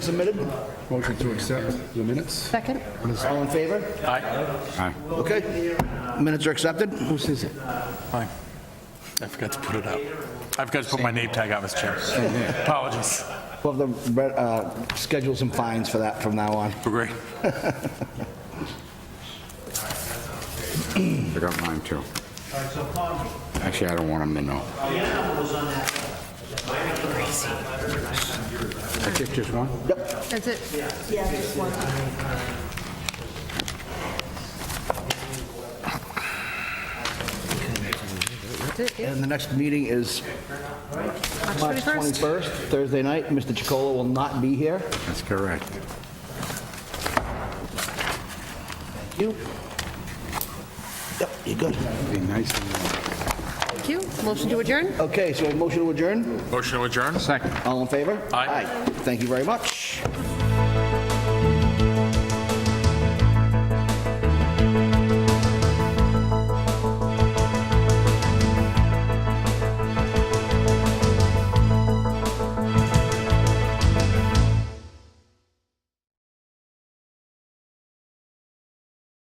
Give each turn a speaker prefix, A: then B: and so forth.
A: submitted?
B: Motion to accept the minutes?
C: Second?
A: All in favor?
B: Aye.
A: Okay. Minutes are accepted.
B: Whose is it?
D: Hi. I forgot to put it up. I forgot to put my name tag on, Mr. Chairman. Apologies.
A: We'll have the, uh, schedule some fines for that from now on.
D: We're great.
B: I got mine too. Actually, I don't want them to know. I think just one?
C: Is it,
A: And the next meeting is March
C: 21st?
A: 21st, Thursday night. Mr. Chicola will not be here.
B: That's correct.
A: You? Yep, you're good.
B: Be nice to know.
C: thank you. Motion to adjourn?
A: Okay, so a motion to adjourn?
D: Motion to adjourn?
B: Second.
A: All in favor?
D: Aye.
A: Thank you very much.